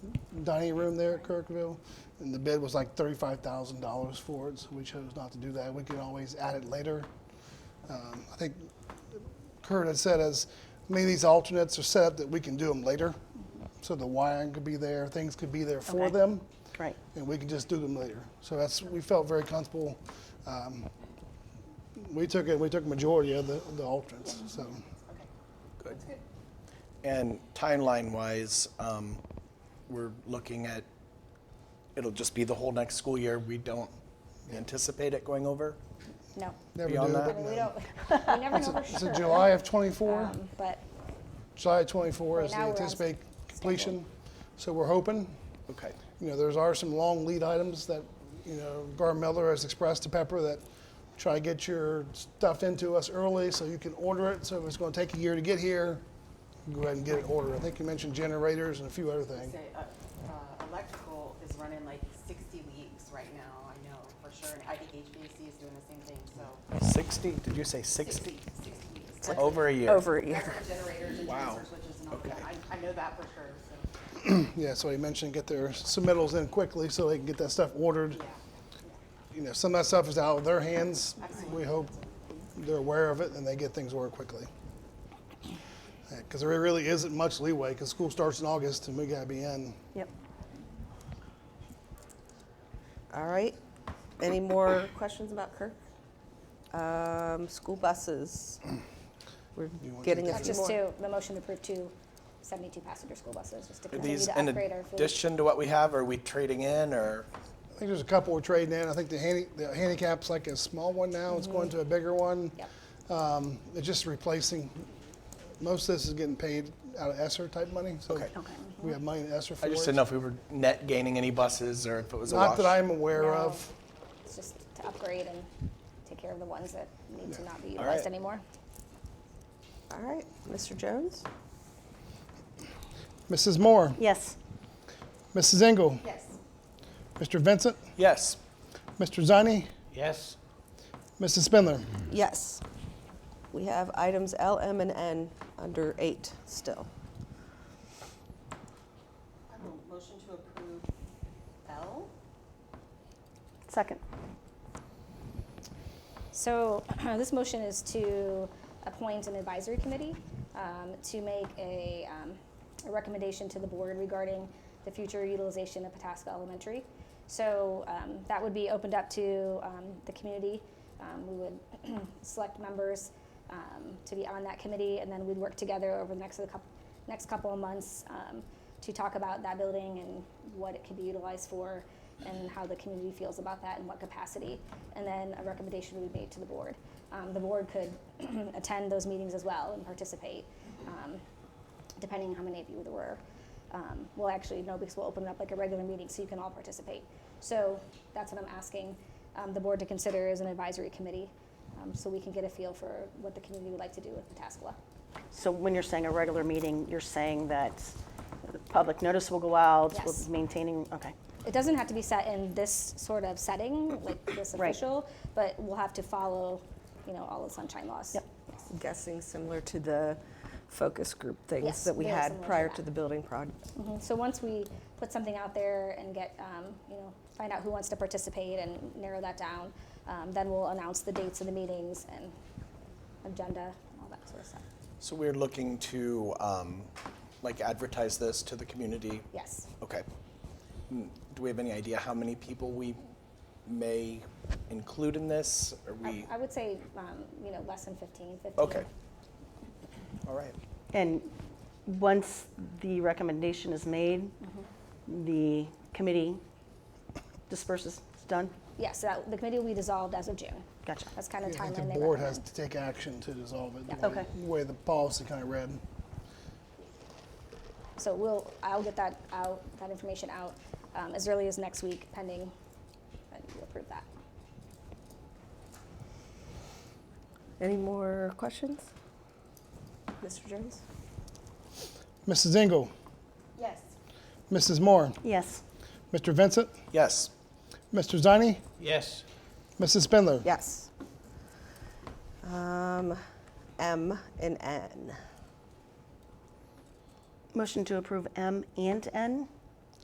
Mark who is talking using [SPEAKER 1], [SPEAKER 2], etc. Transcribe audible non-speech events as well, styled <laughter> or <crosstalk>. [SPEAKER 1] dining room there at Kirkville, and the bid was like $35,000 for it, so we chose not to do that. We could always add it later. Um, I think Kurt had said is, many of these alternates are set up that we can do them later. So the wiring could be there, things could be there for
[SPEAKER 2] Okay.
[SPEAKER 1] them,
[SPEAKER 2] Right.
[SPEAKER 1] and we can just do them later. So that's, we felt very comfortable. Um, We took it, we took majority of the, the alternates, so.
[SPEAKER 3] And timeline-wise, um, we're looking at, it'll just be the whole next school year. We don't anticipate it going over.
[SPEAKER 2] No.
[SPEAKER 1] never
[SPEAKER 3] Beyond
[SPEAKER 1] do,
[SPEAKER 3] that?
[SPEAKER 1] but
[SPEAKER 2] We
[SPEAKER 1] no.
[SPEAKER 2] don't, we never know for
[SPEAKER 1] Is
[SPEAKER 2] sure.
[SPEAKER 1] it July of twenty-four?
[SPEAKER 2] Um, But
[SPEAKER 1] July of twenty-four
[SPEAKER 2] Right
[SPEAKER 1] is the
[SPEAKER 2] now we're on
[SPEAKER 1] anticipated completion, so we're hoping.
[SPEAKER 3] Okay.
[SPEAKER 1] You know, there's are some long lead items that, you know, Gar Miller has expressed to Pepper that try to get your stuff into us early so you can order it. So if it's gonna take a year to get here, go ahead and get it ordered. I think you mentioned generators and a few other things.
[SPEAKER 4] Say, uh, uh, electrical is running like sixty weeks right now, I know for sure, and I think HVAC is doing the same thing, so
[SPEAKER 3] 60, did you say 60?
[SPEAKER 4] sixty, sixty weeks.
[SPEAKER 3] Over a year.
[SPEAKER 2] over a
[SPEAKER 4] That's
[SPEAKER 2] year.
[SPEAKER 4] for generators and
[SPEAKER 3] Wow.
[SPEAKER 4] transfer switches and all
[SPEAKER 3] Okay.
[SPEAKER 4] that, I, I know that for sure, so,
[SPEAKER 1] Yeah, so he mentioned get their submittals in quickly so they can get that stuff ordered.
[SPEAKER 4] yeah,
[SPEAKER 1] You know, some of that stuff is out of their hands. We hope they're aware of it and they get things ordered quickly. Because there really isn't much leeway because school starts in August and we gotta be in.
[SPEAKER 2] Yep.
[SPEAKER 5] All right. Any more questions about Kirk? Um, school buses. We're
[SPEAKER 1] You want to
[SPEAKER 5] getting
[SPEAKER 1] take
[SPEAKER 5] a
[SPEAKER 1] that?
[SPEAKER 5] few
[SPEAKER 6] Just
[SPEAKER 5] more.
[SPEAKER 6] to, the motion to approve two 72-passenger school buses, just to
[SPEAKER 3] Are
[SPEAKER 6] continue
[SPEAKER 3] these
[SPEAKER 6] to
[SPEAKER 3] in
[SPEAKER 6] upgrade our fleet.
[SPEAKER 3] addition to what we have? Are we trading in or?
[SPEAKER 1] I think there's a couple we're trading in. I think the, handy, the handicap's like a small one now. It's going to a bigger one.
[SPEAKER 6] Yep.
[SPEAKER 1] Um, it's just replacing. Most of this is getting paid out of ESSER type money. So
[SPEAKER 3] Okay.
[SPEAKER 1] we have money in ESSER for
[SPEAKER 3] I just
[SPEAKER 1] it.
[SPEAKER 3] didn't know if we were net gaining any buses or if it was a
[SPEAKER 1] Not
[SPEAKER 3] wash.
[SPEAKER 1] that I'm aware
[SPEAKER 6] No.
[SPEAKER 1] of.
[SPEAKER 6] It's just to upgrade and take care of the ones that need to not be
[SPEAKER 3] All
[SPEAKER 6] utilized
[SPEAKER 3] right.
[SPEAKER 6] anymore.
[SPEAKER 5] All right, Mr. Jones?
[SPEAKER 1] Mrs. Moore,
[SPEAKER 2] Yes.
[SPEAKER 1] Mrs. Engel,
[SPEAKER 4] yes.
[SPEAKER 1] Mr. Vincent,
[SPEAKER 3] Yes.
[SPEAKER 1] Mr. Zani,
[SPEAKER 3] Yes.
[SPEAKER 1] Mrs. Spindler.
[SPEAKER 5] Yes. We have items L, M, and N under eight still.
[SPEAKER 4] I will motion to approve L,
[SPEAKER 2] Second.
[SPEAKER 6] So <clears throat> this motion is to appoint an advisory committee um, to make a um, a recommendation to the board regarding the future utilization of Pataska Elementary. So um, that would be opened up to um, the community. Um, We would <clears throat> select members um, to be on that committee, and then we'd work together over the next couple, next couple of months um, to talk about that building and what it could be utilized for, and how the community feels about that and what capacity. And then a recommendation would be made to the board. Um, the board could <clears throat> attend those meetings as well and participate, um, depending on how many of you there were. Um, well, actually, no, because we'll open it up like a regular meeting, so you can all participate. So that's what I'm asking um, the board to consider as an advisory committee, um, so we can get a feel for what the community would like to do with Pataskala.
[SPEAKER 2] So when you're saying a regular meeting, you're saying that public notice will go out, we'll
[SPEAKER 6] Yes.
[SPEAKER 2] be maintaining, okay.
[SPEAKER 6] It doesn't have to be set in this sort of setting, like this
[SPEAKER 2] Right.
[SPEAKER 6] official, but we'll have to follow, you know, all the sunshine laws.
[SPEAKER 2] Yep.
[SPEAKER 5] I'm guessing similar to the focus group things
[SPEAKER 6] Yes,
[SPEAKER 5] that we
[SPEAKER 6] very
[SPEAKER 5] had
[SPEAKER 6] similar to
[SPEAKER 5] prior
[SPEAKER 6] that.
[SPEAKER 5] to the building project.
[SPEAKER 6] Mhm. So once we put something out there and get, um, you know, find out who wants to participate and narrow that down, um, then we'll announce the dates of the meetings and agenda and all that sort of stuff.
[SPEAKER 3] So we're looking to um, like advertise this to the community
[SPEAKER 6] Yes.
[SPEAKER 3] Okay. Mm, Do we have any idea how many people we may include in this? Are
[SPEAKER 6] I,
[SPEAKER 3] we,
[SPEAKER 6] I would say, um, you know, less than 15, 15.
[SPEAKER 3] okay. All right.
[SPEAKER 2] And once the recommendation is made, the committee disperses, it's done?
[SPEAKER 6] Yes, so that, the committee will be dissolved as of June.
[SPEAKER 2] Gotcha.
[SPEAKER 6] That's kind
[SPEAKER 1] I
[SPEAKER 6] of
[SPEAKER 1] think
[SPEAKER 6] timeline
[SPEAKER 1] the
[SPEAKER 6] they
[SPEAKER 1] board
[SPEAKER 6] recommend.
[SPEAKER 1] has to take action to dissolve it,
[SPEAKER 6] Yeah.
[SPEAKER 1] the way-
[SPEAKER 2] Okay.
[SPEAKER 1] the way the policy kind of read.
[SPEAKER 6] So we'll, I'll get that out, that information out um, as early as next week, pending that you approve that.
[SPEAKER 5] Any more questions? Mr. Jones?
[SPEAKER 1] Mrs. Engel,
[SPEAKER 4] yes.
[SPEAKER 1] Mrs. Moore,
[SPEAKER 2] Yes.
[SPEAKER 1] Mr. Vincent,
[SPEAKER 3] Yes.
[SPEAKER 1] Mr. Zani,
[SPEAKER 7] Yes,
[SPEAKER 1] Mrs. Spindler.
[SPEAKER 5] Yes. Um, M and N.
[SPEAKER 2] Motion to approve M and N?